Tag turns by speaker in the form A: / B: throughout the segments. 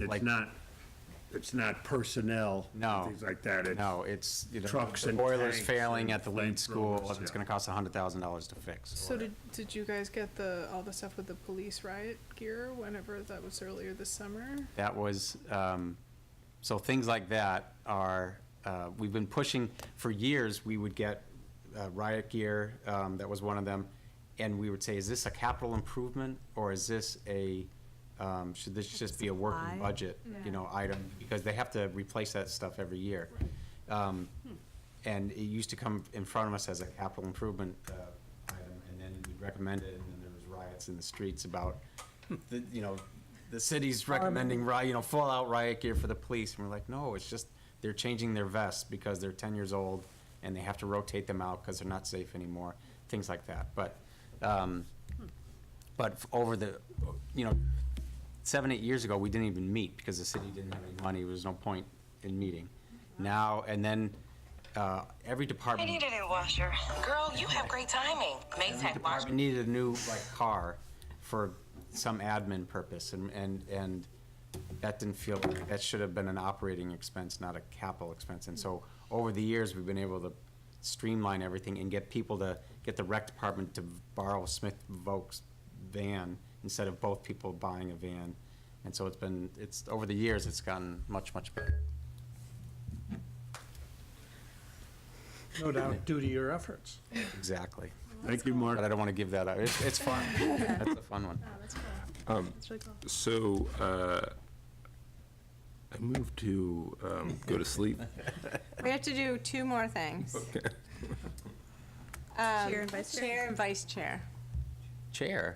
A: It's
B: Like-
A: not, it's not personnel.
B: No.
A: Things like that. It's-
B: No, it's, you know,
A: Trucks
B: the
A: and
B: boiler's
A: tanks
B: failing
A: and
B: at the lead school,
A: flamethrowers,
B: it's
A: yeah.
B: gonna cost hundred thousand dollars to fix.
C: So did, did you guys get the, all the stuff with the police riot gear whenever that was earlier this summer?
B: That was, um, so things like that are, uh, we've been pushing, for years, we would get uh, riot gear, um, that was one of them, and we would say, is this a capital improvement, or is this a, um, should this just be a working
D: Supply?
B: budget, you know, item? Because they have to replace that stuff every year. Um, And it used to come in front of us as a capital improvement uh, item, and then we'd recommend it, and then there was riots in the streets about, the you know, the city's recommending riot, you know, full out riot gear for the police, and we're like, no, it's just, they're changing their vests because they're ten years old, and they have to rotate them out because they're not safe anymore, things like that, but, um, but f- over the, you know, seven, eight years ago, we didn't even meet because the city didn't have any money. There was no point in meeting. Now, and then, uh, every
E: I
B: department.
E: need a new washer. Girl, you have great timing. Maytag washer.
B: department needed a new like car for some admin purpose and, and, and that didn't feel, that should have been an operating expense, not a capital expense. And so over the years, we've been able to streamline everything and get people to, get the rec department to borrow Smith Vokes van instead of both people buying a van. And so it's been, it's, over the years, it's gotten much, much better.
F: No doubt due to your efforts.
B: Exactly.
A: Thank you, Mark.
B: But I don't want to give that up. It's, it's fun. That's a fun one.
D: that's cool. That's really cool.
G: So, uh, I moved to um, go to sleep.
H: We have to do two more things. Um,
D: Chair and vice chair.
H: Chair and vice chair.
B: Chair.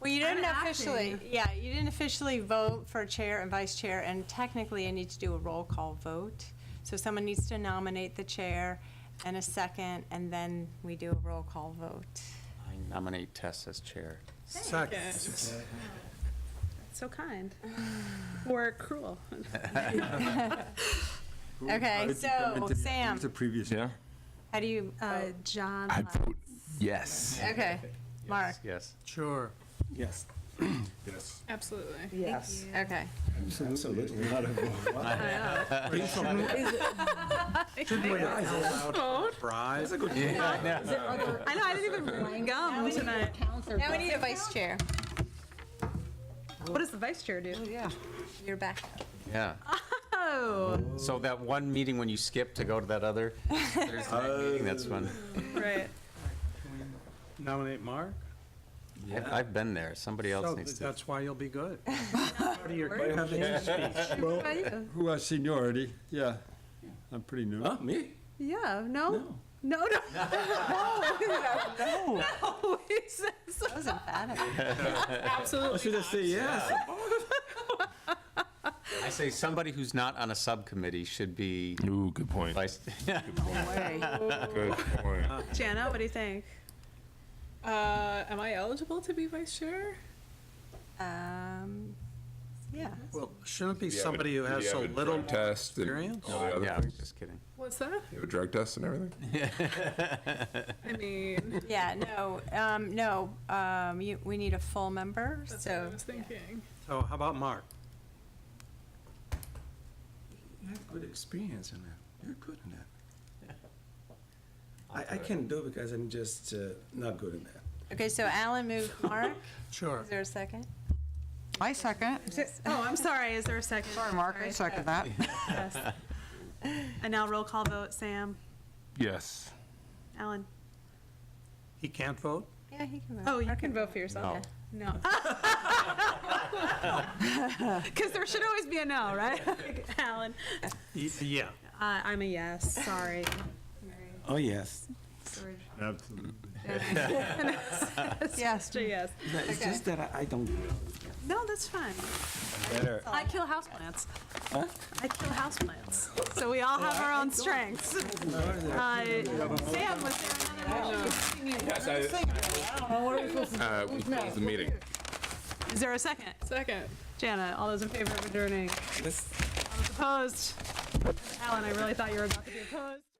H: Well, you didn't
D: I'm
H: officially, yeah, you didn't officially vote for chair and vice chair, and technically I need to do a roll call vote. So someone needs to nominate the chair and a second, and then we do a roll call vote.
B: I nominate Tess as chair.
D: So kind. Or cruel.
H: Okay, so Sam,
A: Who's the previous?
G: Yeah?
H: how do you,
D: Uh,
H: vote?
D: John.
G: I
D: Lott.
G: vote yes.
H: okay, Mark,
B: Yes.
F: Sure.
I: Yes.
A: Yes.
C: Absolutely.
I: Yes.
H: okay.
I: Absolutely.
B: Fries.
D: I know, I didn't even bring gum tonight.
H: Now we need a vice chair. Oh,
D: What does the vice chair do?
H: Yeah. You're back.
B: Yeah.
D: Oh,
B: So that one meeting when you skip to go to that other, there's that meeting, that's when,
D: right.
F: Nominate Mark?
B: I've, I've been there. Somebody
F: So
B: else needs to.
F: That's why you'll be good. Proud of your campaign speech.
A: Well,
D: How about you?
A: who has seniority? Yeah, I'm pretty new.
I: Huh, me?
D: Yeah, no? No, no. No. No. It's- it's-
H: That was emphatic.
I: I should have said yes.
B: I say somebody who's not on a subcommittee should be
G: Ooh, good point.
B: vice.
G: Good point.
D: Jana, what do you think?
C: Uh, am I eligible to be vice chair?
H: Um, yeah.
F: Well, shouldn't it be
G: Did you have a-
F: somebody who
G: did
F: has
G: you
F: so
G: have a
F: little
G: drug test and
F: experience?
G: all the other
B: Yeah, I was
G: things?
B: just kidding.
C: What's that?
G: You have a drug test and everything?
C: I mean,
H: Yeah, no, um, no, um, you, we need a full member,
C: that's what I
H: so.
C: was thinking.
F: So how about Mark?
I: You have good experience in that. You're good in that. I, I can do because I'm just uh, not good in that.
H: Okay, so Alan moved Mark.
F: Sure.
H: Is there a second?
J: I second.
D: Oh, I'm sorry. Is there a second?
J: Sorry, Mark, I
D: Sorry.
J: second that.
D: Yes. And now roll call vote, Sam,
G: Yes.
D: Alan.
F: He can't vote?
H: Yeah, he can move.
D: Oh, you can vote for yourself. No. Because there should always be a no, right? Alan.
F: Y- Yeah.
D: Uh, I'm a yes, sorry.
I: Oh, yes.
A: Absolutely.
J: Yes.
D: It's a yes.
I: No, It's just that I, I don't.
D: No, that's fine. I kill houseplants. I kill houseplants. So we all have our own strengths. Uh, Sam, was there another motion?
G: Yes, I. Uh, we closed the meeting.
D: Is there a second?
C: Second.
D: Jana, all those in favor of adjourning?
I: Let's-
D: All those opposed? Alan, I really thought you were about to be opposed.